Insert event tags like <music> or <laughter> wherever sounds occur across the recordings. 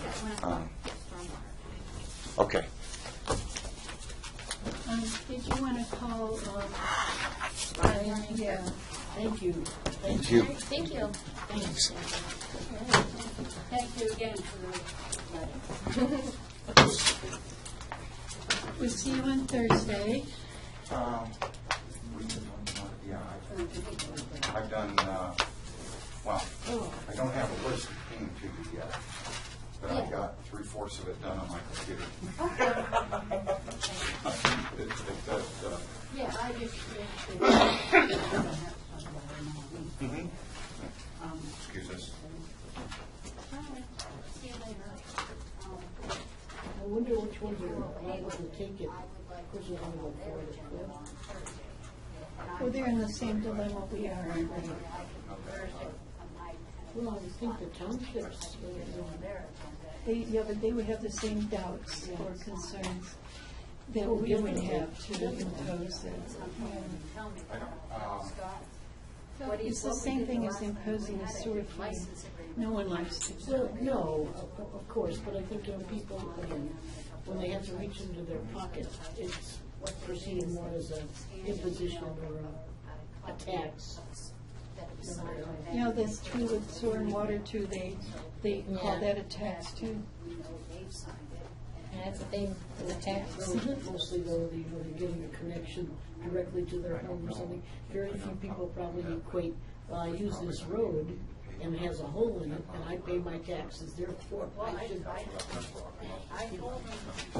plant water, stormwater. Okay. Um, Did you want to call, um, I- Yeah, thank you. Thank you. Thank you. Thank you again for the letter. We'll see you on Thursday. Um, we can- Yeah, I've- I've done, uh, well, I don't have a list that came to you yet, but I Yeah. got three fourths of it done on my computer. It- it does, uh, Yeah, I just, Mm-hmm. Excuse us. see you later. I wonder which ones are liable to take it. Which is on the board, Well, they're in the same dilemma we are in. Well, I think the townships, uh, uh, They, yeah, but they would have the same doubts or concerns that we would have to impose it. I don't, um, It's the same thing as imposing a sewer fee. No one likes to. well, no, of- of course, but I think young people, again, when they have to reach into their pocket, it's perceived more as an imposition or a- a tax. You know, that's true with sewer and water too. They, they call that a tax too. And that's the thing, with the tax. Mostly though, the, you know, they're getting a connection directly to their home or something. Very few people probably equate, well, I use this road and it has a hole in it and I pay my taxes, therefore I should.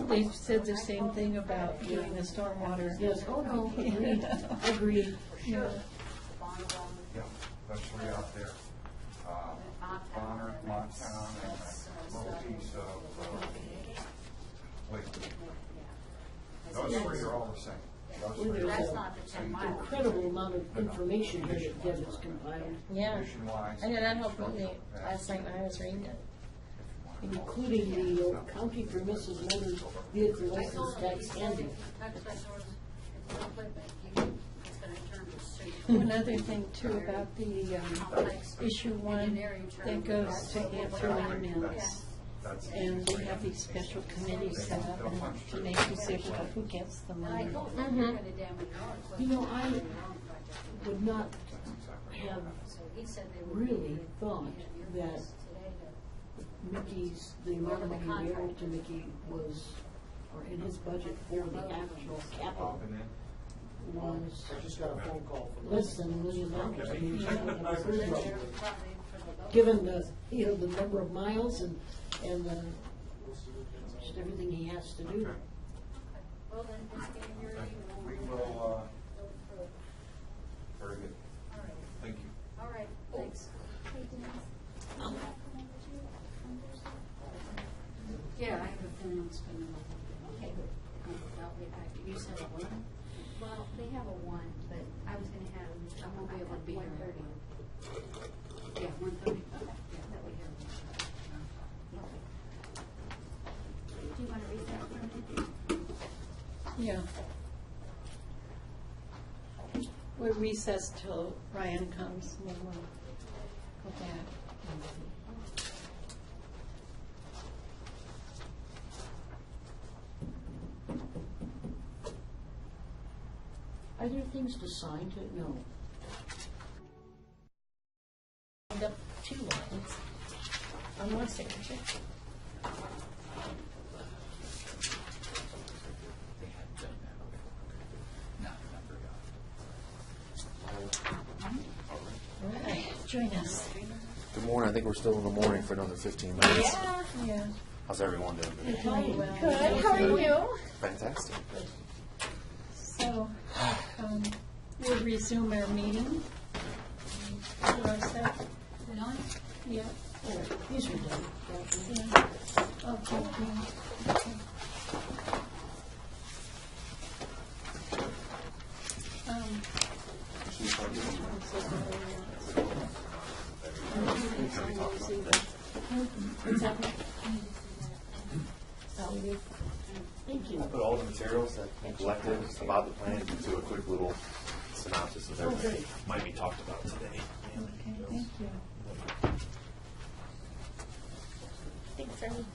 They've said the same thing about doing the stormwater. Yes, oh, no, agreed, agreed. yeah, those three out there. Uh, Bonner, Monttown, and a little piece of, uh, Lakewood. Those three are all the same. Those Well, three are there's all not the same. Incredible amount of information here that Deb has compiled, Yeah. Nationwide. I know that helped me last night when I was reading it. including the uh, county permissive motor vehicle license tax handing. One other thing too about the um, issue one that goes to answer emails. That's And we have these special committees set up and to make you say, well, who gets the money? Mm-hmm. You know, I would not have really thought that Mickey's, the amount of money available to Mickey was, or in his budget for the actual capital popping in. was I just got a phone call from. less than a million dollars. I <laughs> mean, I don't have a clue about it. Given the, you know, the number of miles and, and the, just everything he has to do. We will, uh, very good. Thank you. All right, thanks. Yeah, I have a feeling it's gonna. Okay. I'll be back. You said a one? Well, they have a one, but I was gonna have, I I'm won't be able to be here. One thirty. Yeah, one thirty, okay, yeah, that we have. Do you wanna read that for me? Yeah. We're recessed till Ryan comes and then we'll go back. Are there things to sign to, no. End up two lines on one signature. All right, join us. Good morning. I think we're still in the morning for another 15 minutes. Yeah. How's everyone doing today? Good, how are you? Fantastic. So, um, we'll resume our meeting. Should I say? Yeah. These are done. yeah. Okay. Um, I put all the materials that we collected about the plan into a quick little synopsis of everything Oh, that might be talked about today. Okay, thank you. Thanks, Ernie.